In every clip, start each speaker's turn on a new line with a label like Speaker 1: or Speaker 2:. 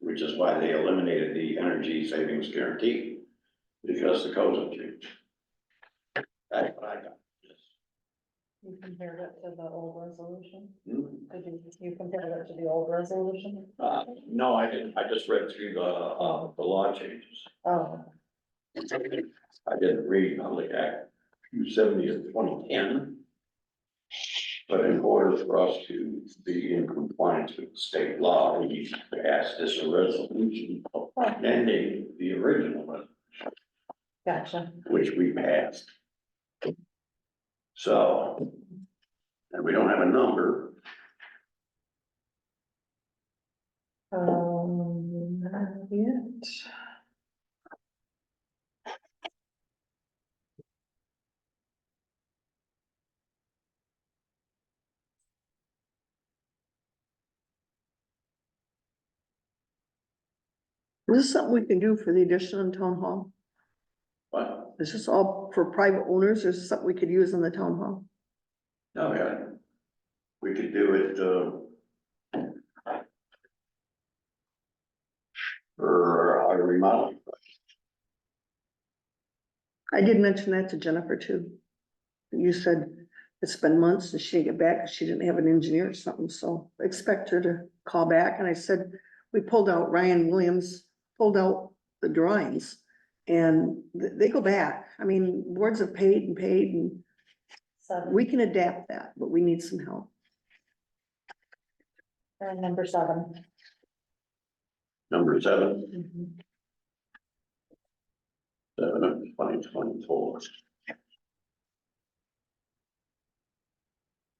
Speaker 1: which is why they eliminated the energy savings guarantee, because the codes have changed. That's what I got. Yes.
Speaker 2: You compared it to the old resolution?
Speaker 1: Hmm.
Speaker 2: Did you, you compared it to the old resolution? Oh,
Speaker 1: Uh, no, I didn't, I just read through the, uh, the law changes.
Speaker 2: Oh,
Speaker 1: I didn't read Public Act two seventy of twenty ten. But in order for us to be in compliance with state law, we need to pass this resolution amending the original one,
Speaker 2: gotcha.
Speaker 1: which we passed. So, and we don't have a number,
Speaker 2: Um, not yet.
Speaker 3: Is this something we can do for the addition on town hall?
Speaker 1: but,
Speaker 3: Is this all for private owners or is this something we could use in the town hall?
Speaker 1: no, yeah. We could do it, uh. For our remodeling.
Speaker 3: I did mention that to Jennifer too. You said it's been months and she didn't get back, 'cause she didn't have an engineer or something, so expect her to call back. And I said, we pulled out Ryan Williams, pulled out the drawings. And th- they go back. I mean, boards have paid and paid and
Speaker 2: Seven,
Speaker 3: we can adapt that, but we need some help.
Speaker 2: uh, number seven.
Speaker 1: Number seven,
Speaker 2: Mhm.
Speaker 1: seven of twenty twenty-four.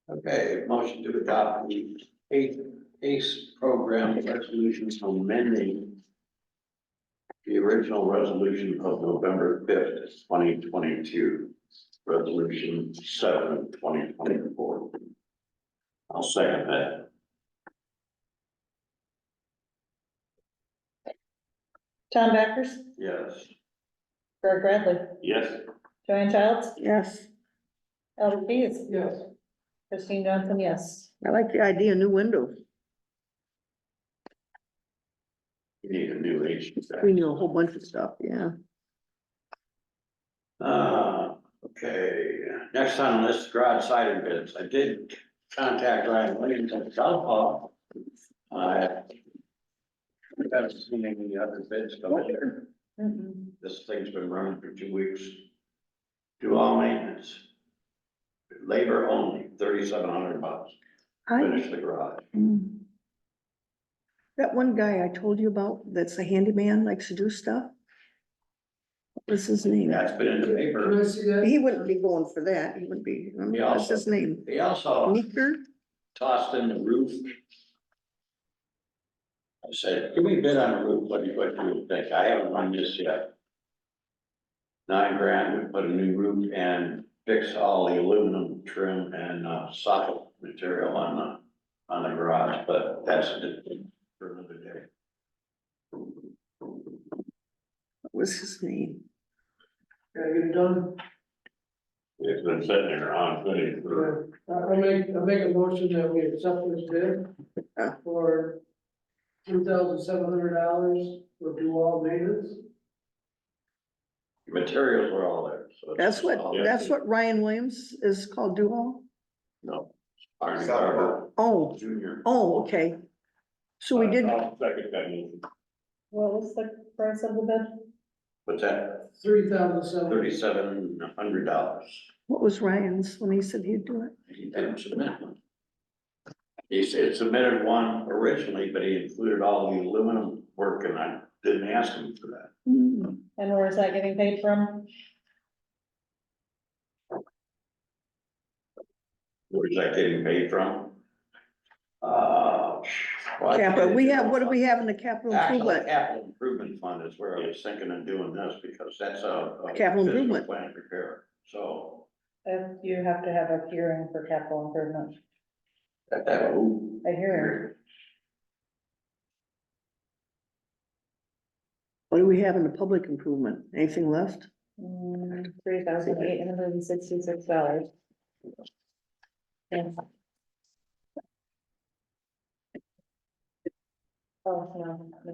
Speaker 1: Okay, motion to adopt the eighth ACE program resolution amending the original resolution of November fifth, twenty twenty-two, resolution seven of twenty twenty-four. I'll second that.
Speaker 2: Tom Backers,
Speaker 1: Yes.
Speaker 2: Greg Bradley,
Speaker 1: Yes.
Speaker 2: Joanne Childs,
Speaker 3: Yes,
Speaker 2: Elder Pease.
Speaker 1: Yes.
Speaker 2: Christine Johnson, yes.
Speaker 3: I like the idea, new window.
Speaker 1: We need a new H.
Speaker 3: We knew a whole bunch of stuff, yeah.
Speaker 1: Uh, okay, next on the list, garage siding bids. I did contact Ryan Williams at Southpaw. I haven't seen any other bids come in.
Speaker 2: Mhm.
Speaker 1: This thing's been running for two weeks. Do all maintenance. Labor only, thirty-seven hundred bucks,
Speaker 3: I,
Speaker 1: finish the garage.
Speaker 3: Mm. that one guy I told you about, that's a handyman, likes to do stuff. What was his name?
Speaker 1: That's been in the paper.
Speaker 3: He wouldn't be going for that, he would be, I don't know, what's his name?
Speaker 1: They also.
Speaker 3: Meeker?
Speaker 1: tossed in the roof. I said, give me a bid on a roof, what do you, what do you think? I haven't run this yet. Nine grand, we put a new roof and fix all the aluminum trim and uh, socket material on the, on the garage, but that's a different for another day.
Speaker 3: What was his name?
Speaker 4: Can I get it done?
Speaker 1: It's been sitting there on, good for
Speaker 4: Uh, I make, I make a motion that we accept this bid
Speaker 3: Yeah.
Speaker 4: for two thousand seven hundred dollars for do all maintenance.
Speaker 1: materials were all there, so. it's
Speaker 3: That's what,
Speaker 1: all-
Speaker 3: that's what Ryan Williams is called, Duhall?
Speaker 1: No. Arnie Garber
Speaker 3: Oh,
Speaker 1: Junior.
Speaker 3: oh, okay. So we did,
Speaker 1: second that motion.
Speaker 2: What was the price of the bid?
Speaker 1: What's that?
Speaker 4: Three thousand seven,
Speaker 1: Thirty-seven hundred dollars.
Speaker 3: what was Ryan's when he said he'd do it?
Speaker 1: He didn't submit one. He said submitted one originally, but he included all the aluminum work and I didn't ask him for that.
Speaker 3: Hmm,
Speaker 2: And where is that getting paid from?
Speaker 1: Where's that getting paid from? Uh. well, I
Speaker 3: Capital, we have, what do we have in the capital
Speaker 1: Actually,
Speaker 3: improvement?
Speaker 1: capital improvement fund is where I was thinking of doing this because that's a. a
Speaker 3: Capital
Speaker 1: physical
Speaker 3: improvement.
Speaker 1: Plan repair, so.
Speaker 2: If you have to have a hearing for capital improvement,
Speaker 1: that- that- ooh.
Speaker 2: a hearing.
Speaker 3: What do we have in the public improvement? Anything left?
Speaker 2: Mm, Three thousand eight hundred and sixty-six dollars. Oh, no, no.